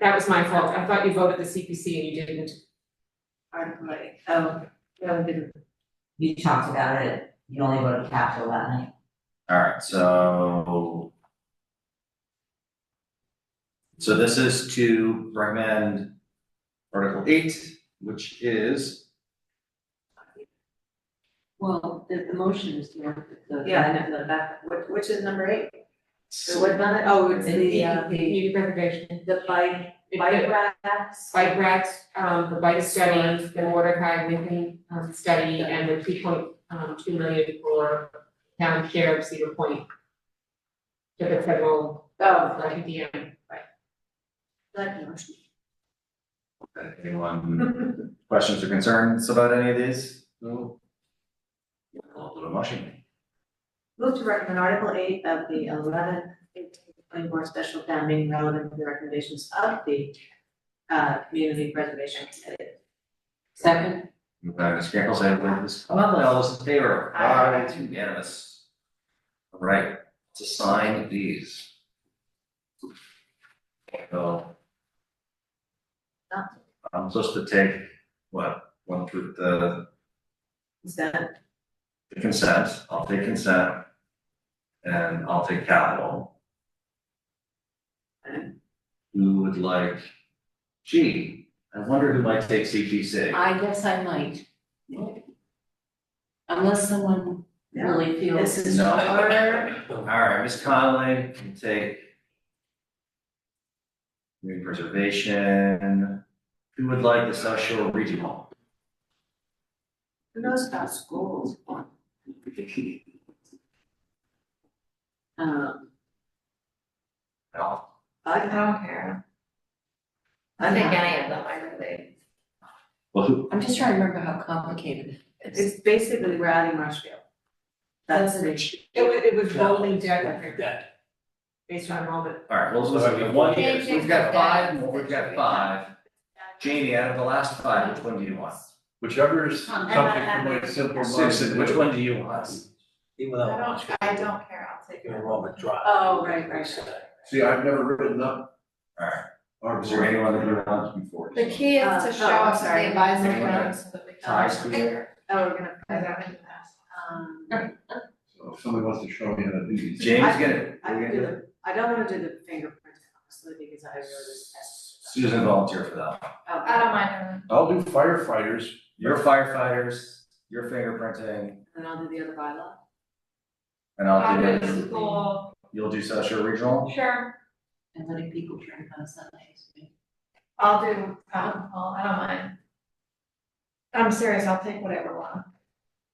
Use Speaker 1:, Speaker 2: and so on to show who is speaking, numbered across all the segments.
Speaker 1: That was my fault. I thought you voted the CPC and you didn't.
Speaker 2: Article eight, oh, no, it didn't.
Speaker 3: You talked about it, you only voted capital that night.
Speaker 4: Alright, so. So this is to recommend Article eight, which is,
Speaker 5: Well, the, the motion is the, the,
Speaker 2: Yeah.
Speaker 5: the back.
Speaker 2: Which, which is number eight? So what's on it? Oh, it's the, uh,
Speaker 1: Community preservation.
Speaker 2: the bike, bike racks.
Speaker 1: Bike racks, um, the bike study, the Mordecai Lincoln um, study, and the two point, um, two million for town share of Cedar Point. To the federal,
Speaker 2: Oh,
Speaker 1: uh, EDM.
Speaker 2: that motion.
Speaker 4: uh, anyone questions or concerns about any of these? No. I'll do a motion.
Speaker 2: Move to recommend Article eight of the eleventh, twenty-four special town meeting relevant to the recommendations of the uh, community preservation committee.
Speaker 5: Second,
Speaker 4: Moved by Ms. Campbell, second by Ms. Conley, all those in favor?
Speaker 2: Aye.
Speaker 4: It's unanimous. Alright, to sign these. So. I'm supposed to take, what, one through the
Speaker 2: Is that,
Speaker 4: the consent, I'll take consent. And I'll take capital. Who would like, gee, I wonder who might take CPC.
Speaker 5: I guess I might. Unless someone really feels.
Speaker 2: this is
Speaker 4: No.
Speaker 2: for,
Speaker 4: Alright, Ms. Conley can take. Community preservation, who would like the South Shore Regional?
Speaker 2: who knows about schools? Um,
Speaker 4: No,
Speaker 2: I
Speaker 3: don't care.
Speaker 5: I think
Speaker 3: any of them, I really.
Speaker 4: well, who,
Speaker 5: I'm just trying to remember how complicated it is.
Speaker 2: It's basically we're adding Marshfield. That's
Speaker 5: Doesn't
Speaker 2: the,
Speaker 1: It was, it was
Speaker 6: Yeah.
Speaker 1: rolling debt, I think,
Speaker 6: That,
Speaker 1: based on enrollment.
Speaker 4: alright, well, listen, we have one here, so we've got five, more, we've got five. Jamie, out of the last five, which one do you want?
Speaker 6: whichever is
Speaker 5: Um,
Speaker 2: and
Speaker 6: something
Speaker 2: I-
Speaker 6: from my simple mind to
Speaker 4: Susan, which
Speaker 6: do.
Speaker 4: one do you want?
Speaker 6: Even though I'm not sure
Speaker 3: I don't care, I'll take
Speaker 6: you're wrong with drive.
Speaker 2: Oh, right, right.
Speaker 6: See, I've never written up.
Speaker 4: Alright.
Speaker 6: Or
Speaker 4: Is there anyone that you're on before?
Speaker 3: The key is
Speaker 2: Uh,
Speaker 3: to
Speaker 2: oh,
Speaker 3: show us the
Speaker 2: sorry.
Speaker 3: advisory
Speaker 4: Okay.
Speaker 3: vote so that we can.
Speaker 4: Ties to the-
Speaker 2: oh, we're gonna,
Speaker 3: I don't think that's-
Speaker 2: um,
Speaker 6: So if somebody wants to show me how to do these.
Speaker 4: James gonna,
Speaker 2: I can
Speaker 4: we're gonna
Speaker 2: do
Speaker 4: do it.
Speaker 2: the, I don't wanna do the fingerprint honestly, because I really Oh, test.
Speaker 4: Susan volunteer for that.
Speaker 3: I don't mind.
Speaker 6: I'll do firefighters.
Speaker 4: You're firefighters, you're fingerprinting,
Speaker 2: And I'll do the other bylaw.
Speaker 4: and I'll do
Speaker 3: Private
Speaker 4: it.
Speaker 3: school,
Speaker 4: You'll do South Shore Regional?
Speaker 3: sure,
Speaker 5: And letting people turn on Sundays.
Speaker 3: I'll do town hall, I don't mind. I'm serious, I'll take whatever one.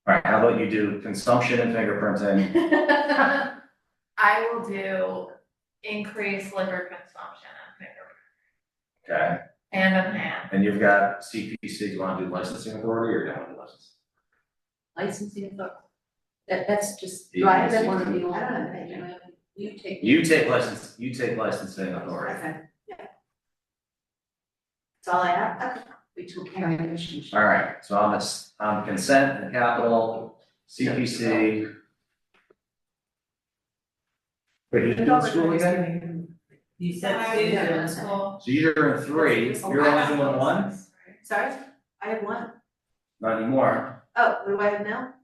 Speaker 4: Alright, how about you do consumption and fingerprinting?
Speaker 3: I will do increased liquor consumption and liquor-
Speaker 4: Okay,
Speaker 3: and a man.
Speaker 4: and you've got CPC, do you wanna do licensing authority or don't wanna do license?
Speaker 5: Licensing authority. That, that's just.
Speaker 4: Yeah,
Speaker 5: Right,
Speaker 4: that's-
Speaker 5: one of the old-
Speaker 2: I don't know.
Speaker 5: you know, You take.
Speaker 4: You take license, you take licensing authority.
Speaker 2: Okay, yeah. That's all I have. Okay.
Speaker 5: We took care of it.
Speaker 4: Alright, so I'm, s- I'm consent and capital, CPC. Wait, who's doing school again?
Speaker 2: You
Speaker 3: I
Speaker 2: two,
Speaker 3: would do
Speaker 2: then-
Speaker 3: school.
Speaker 4: So you're in three, you're only doing one,
Speaker 2: Sorry, I have one.
Speaker 4: not anymore,
Speaker 2: Oh, what do I have now?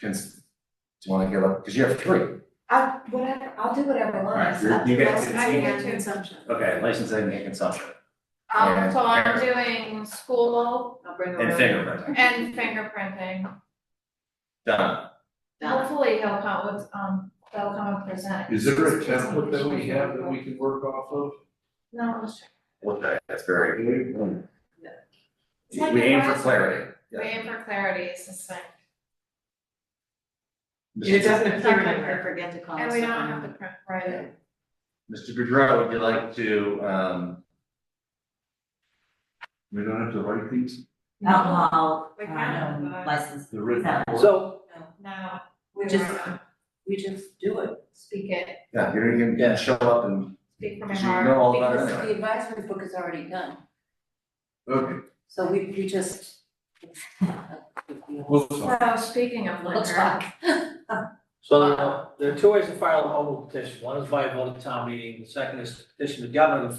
Speaker 4: cons- do you wanna give up, cause you have three.
Speaker 2: Uh, whatever, I'll do whatever one.
Speaker 4: Alright, you're- you get to
Speaker 2: I
Speaker 4: see-
Speaker 2: can do consumption.
Speaker 4: Okay, licensing and consumption,
Speaker 3: Um, so I'm doing school
Speaker 2: I'll bring over.
Speaker 4: and fingerprinting,
Speaker 3: and fingerprinting.
Speaker 4: done,
Speaker 2: Done.
Speaker 3: Hopefully he'll come with, um, they'll come and present.
Speaker 6: Is there a template that we have that we can work off of?
Speaker 3: No, let's check.
Speaker 4: okay, that's very,
Speaker 2: Yeah.
Speaker 4: we aim for clarity, yeah.
Speaker 3: Waiting for clarity, it's just like,
Speaker 1: It
Speaker 4: Mr.
Speaker 1: doesn't appear
Speaker 2: I
Speaker 1: anywhere.
Speaker 2: forget to call.
Speaker 3: and we don't
Speaker 2: someone.
Speaker 3: have to print, write it.
Speaker 4: Mr. Goudreau, would you like to, um,
Speaker 6: We don't have to write these,
Speaker 2: Alcohol,
Speaker 3: We can,
Speaker 2: um,
Speaker 3: but
Speaker 2: license.
Speaker 6: the written.
Speaker 2: No.
Speaker 6: report.
Speaker 5: So.
Speaker 3: now
Speaker 5: We
Speaker 3: we
Speaker 5: just-
Speaker 3: were,
Speaker 5: We just do it.
Speaker 3: speak it,
Speaker 4: yeah, you're gonna give- show up and,
Speaker 3: speak from my
Speaker 4: cause you
Speaker 3: heart.
Speaker 4: know all about it
Speaker 5: Because
Speaker 4: anyway.
Speaker 5: the advisory book is already done,
Speaker 6: Okay,
Speaker 5: so we, we just.
Speaker 6: we'll
Speaker 3: So speaking of
Speaker 5: Let's
Speaker 3: liquor,
Speaker 5: talk.
Speaker 7: So there are- there are two ways to file a mobile petition. One is by a vote of town meeting, the second is to petition the governor to